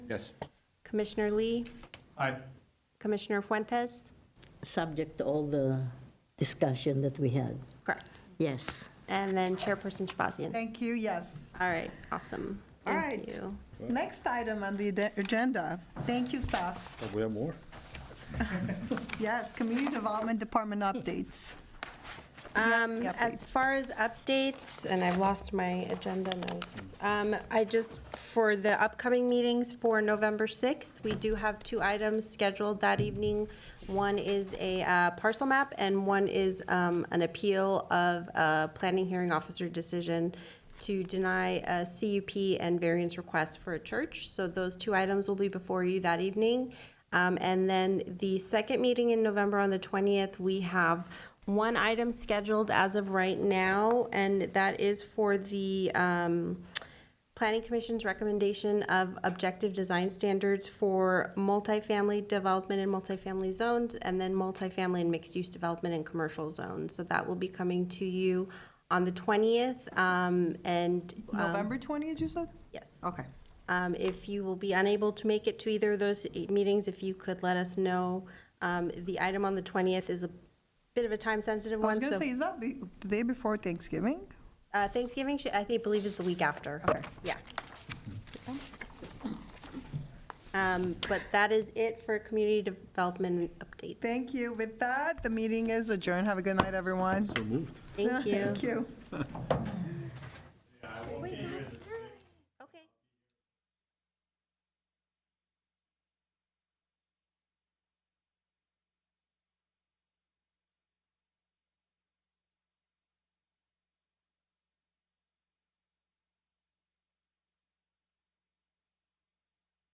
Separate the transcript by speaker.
Speaker 1: Yes.
Speaker 2: Commissioner Lee,
Speaker 3: Aye.
Speaker 2: Commissioner Fuentes?
Speaker 4: subject to all the discussion that we had.
Speaker 2: Correct.
Speaker 4: Yes.
Speaker 2: And then Chairperson Shabazzian?
Speaker 5: Thank you, yes.
Speaker 2: All right, awesome.
Speaker 5: All
Speaker 2: Thank
Speaker 5: right.
Speaker 2: you.
Speaker 5: Next item on the ad- agenda. Thank you, staff.
Speaker 1: Oh, We have more?
Speaker 5: Yes, Community Development Department updates.
Speaker 2: Um,
Speaker 5: yep.
Speaker 2: as far as updates, and I've lost my agenda notes, um, I just, for the upcoming meetings for November 6th, we do have two items scheduled that evening. One is a uh, parcel map, and one is um, an appeal of a planning hearing officer decision to deny a CUP and variance request for a church. So those two items will be before you that evening. Um, And then the second meeting in November on the 20th, we have one item scheduled as of right now, and that is for the um, Planning Commission's recommendation of objective design standards for multifamily development and multifamily zones, and then multifamily and mixed-use development and commercial zones. So that will be coming to you on the 20th, um, and. um,
Speaker 5: November 20th, you said?
Speaker 2: Yes.
Speaker 5: Okay.
Speaker 2: Um, If you will be unable to make it to either of those eight meetings, if you could let us know. Um, The item on the 20th is a bit of a time-sensitive
Speaker 5: I was
Speaker 2: one,
Speaker 5: going to
Speaker 2: so
Speaker 5: say, is that be- the day before Thanksgiving?
Speaker 2: uh, Thanksgiving, should- I think, believe is the week after.
Speaker 5: Okay.
Speaker 2: Yeah. Um, But that is it for community development updates.
Speaker 5: Thank you. With that, the meeting is adjourned. Have a good night, everyone.
Speaker 1: So moved.
Speaker 2: Thank you.
Speaker 5: Thank you.